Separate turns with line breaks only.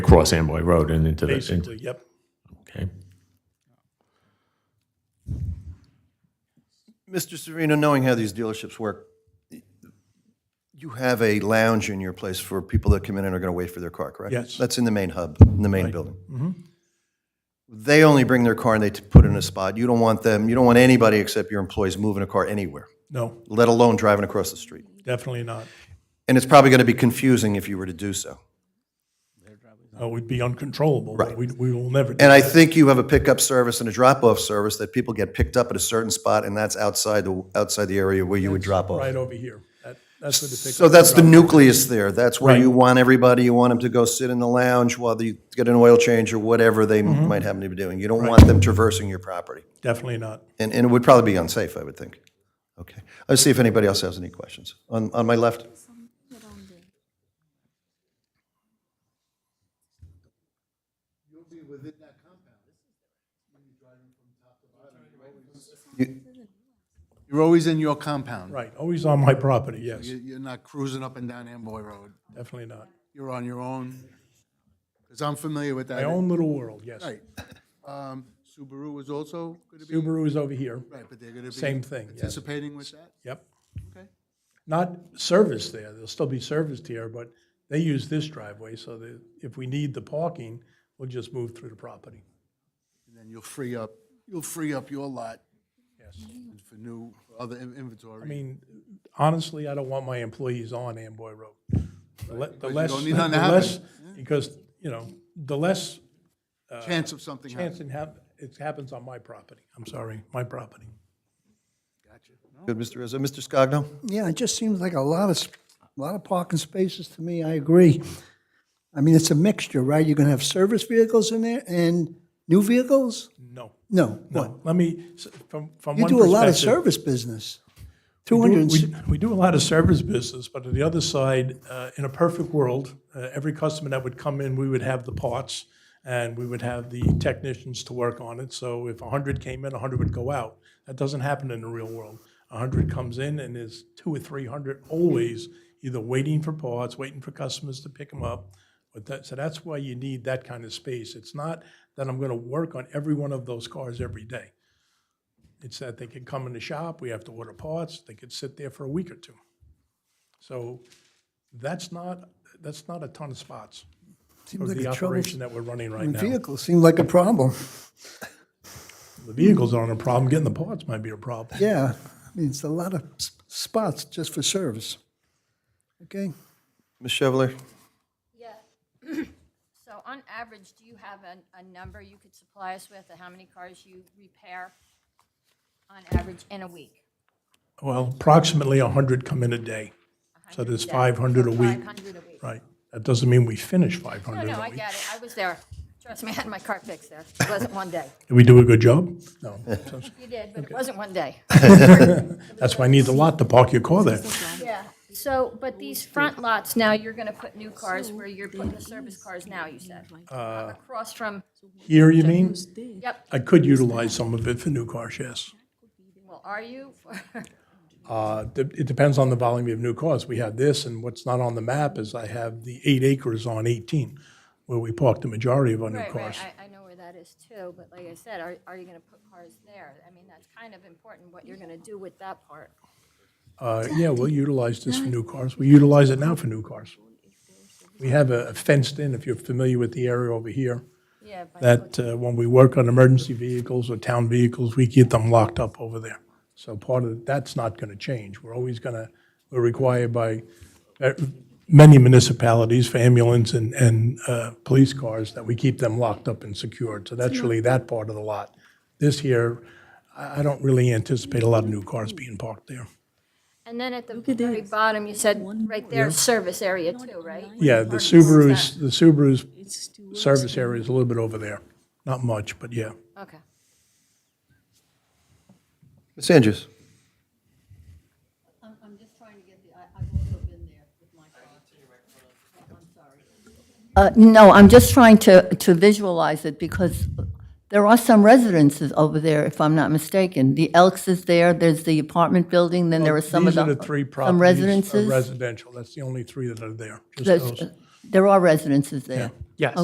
across Amboy Road and into the,
Basically, yep.
okay.
Mr. Serino, knowing how these dealerships work, you have a lounge in your place for people that come in and are going to wait for their car, correct?
Yes. Mm-hmm.
That's in the main hub, in the main building. They only bring their car and they t- put it in a spot. You don't want them, you don't want anybody except your employees moving a car anywhere,
No,
let alone driving across the street.
definitely not.
And it's probably going to be confusing if you were to do so.
Uh, We'd be uncontrollable. Right. We we will never, do
And
that.
I think you have a pickup service and a drop-off service that people get picked up at a certain spot, and that's outside the, outside the area where you would drop off.
right over here. That- That's where the pickup.
So that's the nucleus there. That's where
Right.
you want everybody, you want them to go sit in the lounge while they get an oil change or whatever they m- might happen to be doing. You don't want them traversing your property.
Definitely not.
And, and it would probably be unsafe, I would think. Okay. Let's see if anybody else has any questions. On, on my left?
You're always in your compound.
Right, always on my property, yes,
You- You're not cruising up and down Amboy Road.
definitely not.
You're on your own. Because I'm familiar with
My
that.
own little world, yes.
Right. Um, Subaru is also going to be,
Subaru is over here,
right, but they're going to be.
Same thing, yeah.
Participating with that?
yep.
Okay.
Not serviced there, they'll still be serviced here, but they use this driveway, so that if we need the parking, we'll just move through the property.
And then you'll free up, you'll free up your lot
Yes.
for new, for other in-
I
inventory.
mean, honestly, I don't want my employees on Amboy Road. The le- The less,
don't
the
need nothing to happen.
less, because, you know, the less
Chance of something happening.
uh, chance it hap, it happens on my property. I'm sorry, my property.
Good, Mr. Rizzo. Mr. Scogno?
Yeah, it just seems like a lot of, sp- a lot of parking spaces to me, I agree. I mean, it's a mixture, right? You're gonna have service vehicles in there and new vehicles?
No,
No, what?
no, let me, s- from, from
You
one
do a lot of
perspective-
service business.
We do-
200,
We we do a lot of service business, but on the other side, uh, in a perfect world, uh, every customer that would come in, we would have the parts and we would have the technicians to work on it. So if 100 came in, 100 would go out. That doesn't happen in the real world. 100 comes in and there's two or 300 always either waiting for parts, waiting for customers to pick them up. But that, so that's why you need that kind of space. It's not that I'm going to work on every one of those cars every day. It's that they can come in the shop, we have to order parts, they could sit there for a week or two. So that's not, that's not a ton of spots
seems
of
like
the
a trouble.
operation that we're running right now.
Vehicles seem like a problem,
The vehicles aren't a problem, getting the parts might be a problem.
yeah. I mean, it's a lot of s- spots just for service. Okay?
Ms. Chevalier?
Yeah. So on average, do you have a, a number you could supply us with of how many cars you repair on average in a week?
Well, approximately 100 come in a day, so there's 500 a week.
Five hundred a week?
Right, that doesn't mean we finish
No,
500
no,
a
I
week.
get it. I was there. Trust me, I had my car fixed there. It wasn't one day.
Did we do a good job? No,
You did, but it wasn't one day.
that's why I need the lot to park your car there.
Yeah. So, but these front lots now, you're gonna put new cars where you're putting the service cars now, you said?
Uh,
Across from,
Here, you mean?
yep,
I could utilize some of it for new cars, yes.
well, are you?
Uh, de- It depends on the volume of new cars. We have this, and what's not on the map is I have the eight acres on 18, where we park the majority of our new
Right,
cars.
right, I, I know where that is too, but like I said, are, are you gonna put cars there? I mean, that's kind of important, what you're gonna do with that part.
Uh, Yeah, we'll utilize this for new cars. We utilize it now for new cars. We have a a fenced in, if you're familiar with the area over here,
Yeah, but
that uh, when we work on emergency vehicles or town vehicles, we keep them locked up over there. So part of, that's not going to change. We're always going to, we're required by uh, many municipalities for ambulance and, and uh, police cars that we keep them locked up and secured. So that's really that part of the lot. This year, I, I don't really anticipate a lot of new cars being parked there.
And then at the very bottom, you said, right there, service area too, right?
Yeah, the Subarus, the Subarus service area is a little bit over there. Not much, but yeah.
Okay.
Ms. Andrews?
I'm, I'm just trying to get the, I, I've also been there with my car. I'm sorry. Uh, no, I'm just trying to, to visualize it because there are some residences over there, if I'm not mistaken. The Elks is there, there's the apartment building, then there are some of
These
the.
are the three properties.
Some
are
residences. uh,
Residential, that's the only three that are there, just
There's-
those.
There are residences there.
Yes.